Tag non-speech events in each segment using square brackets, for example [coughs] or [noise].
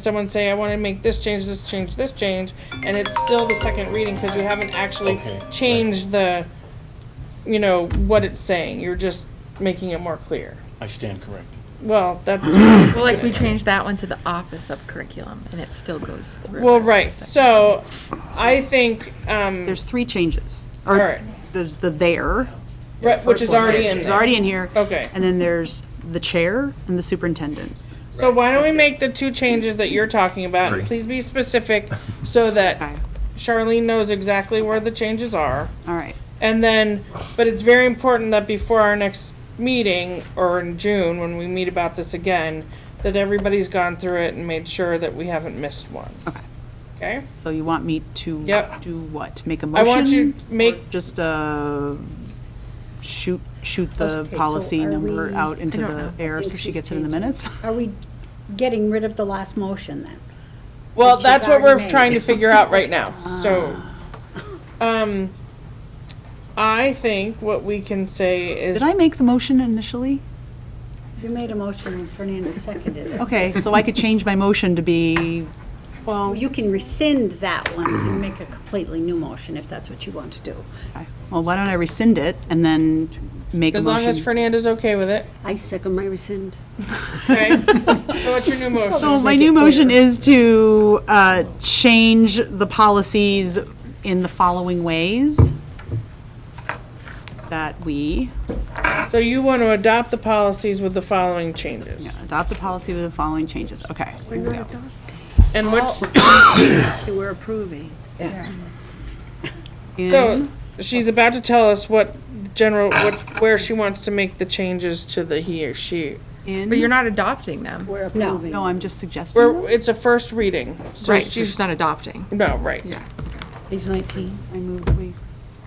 someone say, I want to make this change, this change, this change, and it's still the second reading because you haven't actually Okay, right. changed the, you know, what it's saying. You're just making it more clear. I stand corrected. Well, that's, [coughs] Well, like, we changed that one to the Office of Curriculum, and it still goes through. well, as the right. second. So I think, um, There's three changes. all Or right, There's the there. right, which is first one, already in Which is there. already in here. Okay. And then there's the chair and the superintendent. So why don't we make the two changes that you're talking about? and Please be specific so Okay, that Charlene knows exactly where the changes are. all right. And then, but it's very important that before our next meeting, or in June, when we meet about this again, that everybody's gone through it and made sure that we haven't missed one. Okay. Okay? So you want me to Yep. do what? Make a I motion? want you to make, Or Just, uh, shoot, shoot the Okay, so policy are number we- out into I don't the know. air I so think she she's gets it in the changing. minutes? Are we getting rid of the last motion then? well, you've that's what we're already made. Ah. trying to figure out right [laughs] now, so. Um, I think what we can say is, Did I make the motion initially? You made a motion and Fernando seconded it. Okay, so I could change my motion to be, Well, Oh, you can rescind that one and make a completely new motion if that's what you want to do. well, why don't I rescind it and then make a as long motion? as Fernanda's okay with [laughs] it, I second my rescind. okay? So what's your new motion? So my new motion is to uh, change the policies in the following ways. That we So you want to adopt the policies with the following changes. adopt the policy with the following changes. Okay. here we go. And which, We're approving. So she's about to tell us what general, what, where she wants to make the changes to the he or she. In- But you're in- not adopting them. We're approving. No, I'm just suggesting. them. We're, it's a first reading. so Right, so she's not adopting. No, right. Yeah. Page 19. I move that we,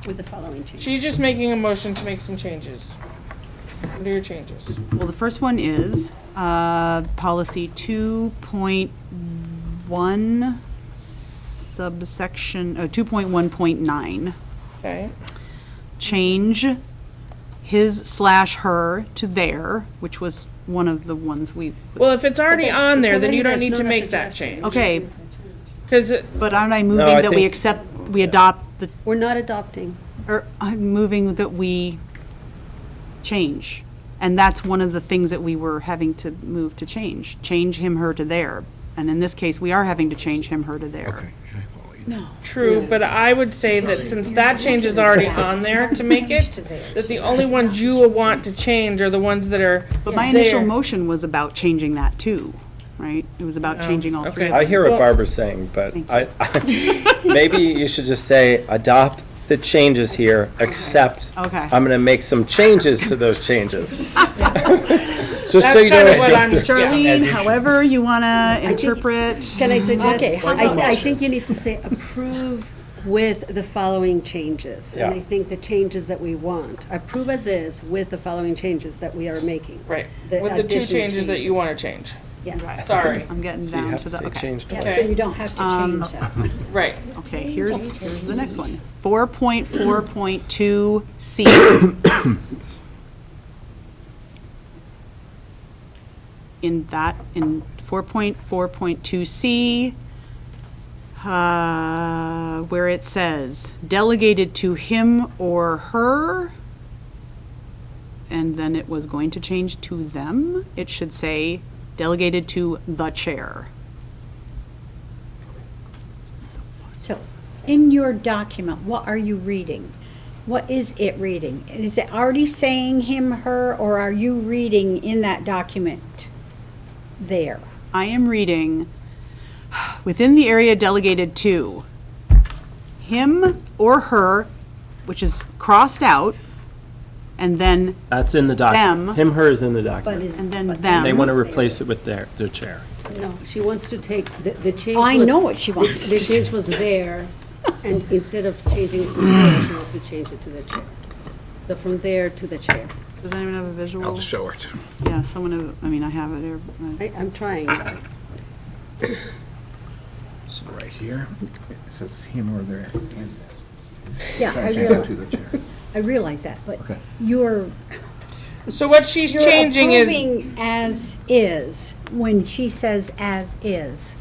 With the following change. She's just making a motion to make some changes. What are your changes? well, the first one is uh, policy 2.1 subsection, oh, 2.1.9. Okay, change his slash her to their, which was one of the ones we, well, if it's already on there, then you don't there's need to no make that suggestion. change. okay, Cause, it- but aren't I moving that we accept, we adopt the, We're not adopting. or I'm moving that we change. And that's one of the things that we were having to move to change, change him, her to their. And in this case, we are having to change him, her to their. true, but I would say that since that change is already on there to make it, that the only ones you will want to change are the ones that are But my initial Their. motion was about changing that too, right? It was about changing all three of okay. I them. hear Well- what Barbara's saying, but I, [laughs] maybe you should just say, adopt the changes here, except Okay. I'm gonna make some changes to those changes. Just so That's [laughs] you know. kind of it's what good. I'm, yeah. Charlene, however you want to interpret. Can I suggest? Okay, how I, I think you need to say approve with the following changes. And I Yeah. think the changes that we want, approve as is with the following changes that we are making. right, The with the two additional changes that you wanna change. Yeah. Sorry, Um, I'm getting You down have to to the, say okay. change Yeah, twice. So you don't have to change that. [laughs] right. Okay, here's, here's the next one. Four point four point two C. In that, in four point four point two C, uh, where it says delegated to him or her, and then it was going to change to them, it should say delegated to the chair. So, in your document, what are you reading? What is it reading? Is it already saying him, her, or are you reading in that document there? I am reading within the area delegated to him or her, which is crossed out, and then That's in the Them. document. Him, her is in the But document. is, and then but- They them. want to replace it with their, their chair. no, she wants to take, the, the change Oh, I was- know what she the- wants. The change was [clears throat] there, and instead of changing it to there, she wants to change it to the chair. So from there to the chair. Does anyone have a visual? I'll just show it. Yeah, someone. Have, I mean, I have it. here, but- I, I'm trying. This is right here. It says him or their. and- Yeah, I Change it realize, to the chair. I realize that, but Okay. you're, So what she's You're changing is. approving As is, when she says as is.